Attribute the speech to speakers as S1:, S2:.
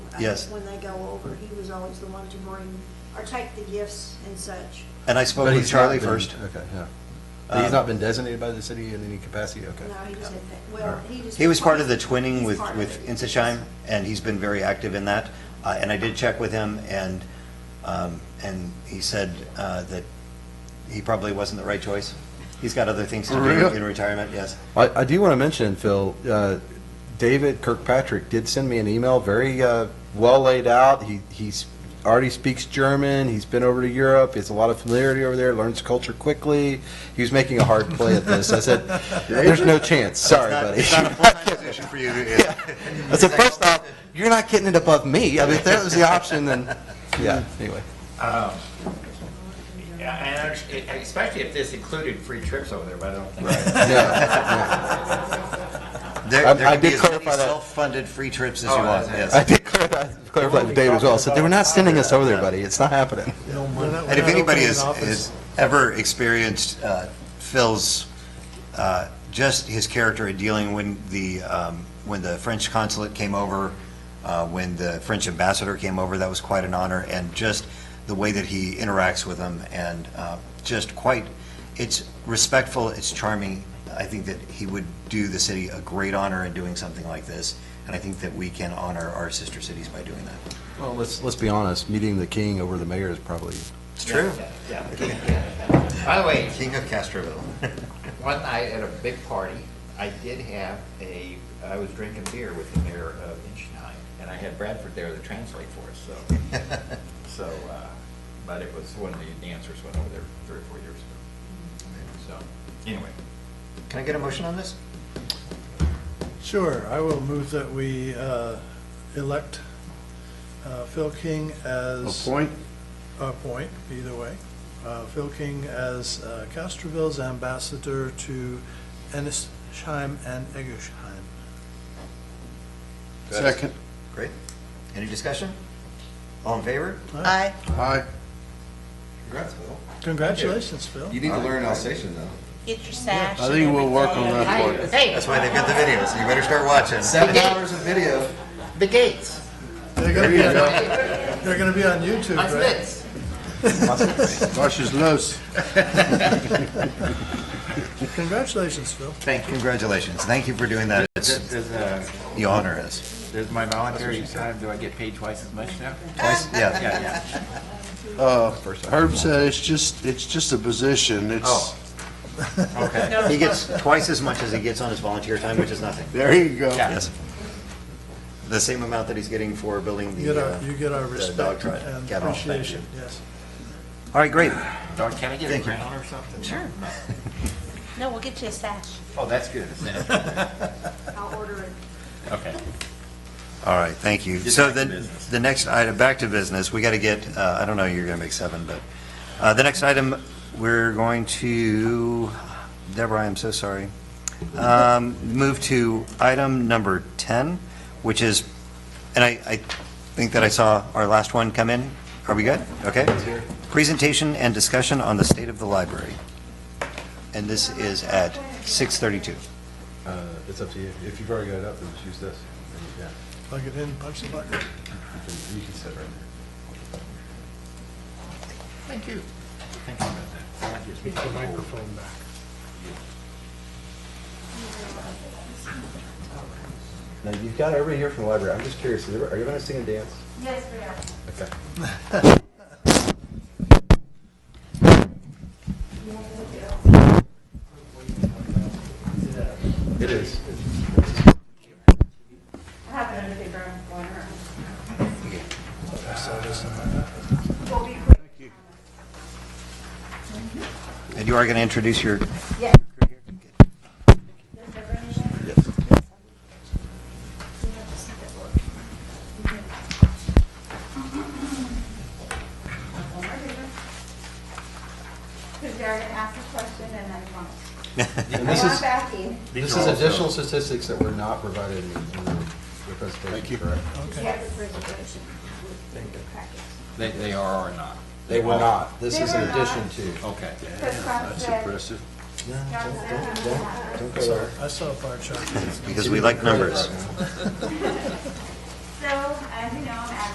S1: uh,
S2: Yes.
S1: When they go over, he was always the one to bring, or take the gifts and such.
S2: And I spoke
S3: But
S2: with
S3: Oh, he's not
S2: Charlie
S3: been-
S2: first.
S3: Okay, yeah. But
S2: Um,
S3: he's not been designated by the city in any capacity, okay.
S1: No, he just had, that-
S3: All
S1: well,
S3: right.
S1: he just.
S2: He was part of the
S1: He's
S2: twinning with,
S1: part of
S2: with
S1: it.
S2: Insesheim, and he's been very active in that. Uh, And I did check with him, and, um, and he said uh, that he probably wasn't the right choice. He's got other things to do
S3: Really?
S2: in retirement, yes.
S3: I, I do want to mention, Phil, uh, David Kirkpatrick did send me an email, very uh, well laid out. He he's already speaks German. He's been over to Europe. He has a lot of familiarity over there. Learns culture quickly. He was making a hard play at this. I said, "There's no chance. Sorry,
S2: It's not- It's
S3: buddy."
S2: not a full-time position for you. to-
S3: I said, first off, you're not getting it above me. I mean, if that was the option, then yeah. Anyway,
S4: Yeah, and I understand- especially if this included free trips over there, but I don't think.
S2: There
S3: I-
S2: there
S3: I
S2: can be
S3: did
S2: as many
S3: clarify that.
S2: self-funded free trips as
S4: Oh,
S2: you want,
S4: that's it.
S2: yes.
S3: I did clarify, clarify to David as well. I said, "They were not sending us over there, buddy. It's not happening."
S2: And if anybody has, has ever experienced uh, Phil's, uh, just his character in dealing when the, um, when the French consulate came over, uh, when the French ambassador came over, that was quite an honor, and just the way that he interacts with them, and uh, just quite, it's respectful, it's charming. I think that he would do the city a great honor in doing something like this, and I think that we can honor our sister cities by doing that.
S3: Well, let's let's be honest. Meeting the king over the mayor is probably
S2: It's true.
S4: Yeah. By the way,
S2: King of Castroville.
S4: one night at a big party, I did have a, I was drinking beer with the mayor of Inchinheim, and I had Bradford there to translate for us, so, so, uh, but it was when the dancers went over there three or four years ago. So, anyway,
S2: Can I get a motion on this?
S5: Sure, I will move that we uh, elect uh, Phil King as. Appoint? Appoint, either way. Uh, Phil King as uh, Castroville's ambassador to Ennisheim and Eggersheim.
S6: Second.
S2: Great. Any discussion? All in favor?
S5: Aye.
S6: Aye.
S2: Congrats, Bill.
S5: Congratulations, Phil.
S6: You need to learn Alsatian, though.
S7: Get your sash.
S6: I think we'll work on that for you.
S2: That's why they've got the videos, so you better start watching.
S6: Seven hours of video.
S4: the gates,
S5: They're gonna be on- they're gonna be on YouTube,
S4: that's
S5: right?
S4: it.
S6: Russia's loose.
S5: Congratulations, Phil.
S2: Thank you. Congratulations. Thank you for doing that. It's,
S4: Does, uh,
S2: you honor us.
S4: does my voluntary time, do I get paid twice as much now?
S2: Twice- Yeah.
S4: Yeah, yeah.
S6: Herb said it's just, it's just a position. It's,
S4: Oh. Okay,
S2: He gets twice as much as he gets on his volunteer time, which is nothing.
S6: there you go.
S4: Yeah.
S2: Yes. The same amount that he's getting for building
S5: You get
S2: the,
S5: our,
S2: uh,
S5: you get our
S2: the dog
S5: respect
S2: trot.
S5: and
S2: Kennel. Thank you.
S5: appreciation, yes.
S2: All right, great.
S4: Doc, can I get a
S2: Thank you.
S4: crown or something? Sure.
S7: No, we'll get you a sash.
S4: Oh, that's good.
S1: I'll order it.
S4: Okay.
S2: All right, thank you.
S4: Get
S2: So
S4: back to
S2: then,
S4: business.
S2: the next item, back to business, we got to get, uh, I don't know, you're going to make seven, but, uh, the next item, we're going to, Deborah, I'm so sorry, Um, move to item number 10, which is, and I, I think that I saw our last one come in. Are we good? Okay. Presentation and discussion on the state of the library. And this is at 6:32.
S3: uh, it's up to you. If you've already got it up, then just use this. Yeah,
S5: Plug it in, punch the button.
S3: you can, you can sit right there.
S4: Thank you. Thank you about that. Speak the microphone back.
S3: Now, you've got everybody here from the library. I'm just curious, is there- are you going to sing and dance?
S7: Yes, we are.
S3: Okay. It is.
S7: I have another paper I'm going around.
S2: And you are going to introduce your
S7: Yes. Because they're going to ask a question and I want.
S3: And
S7: I
S3: this
S7: want
S3: is,
S7: backing.
S3: this is additional statistics that were not provided in the in the presentation, correct?
S7: Yes. Package.
S4: They, they are or not?
S3: They were not. This
S7: They
S3: is in
S7: were not.
S3: addition to.
S4: Okay.
S7: Because Bob said, John said he was not.
S5: I saw a bar chart.
S2: because we like numbers.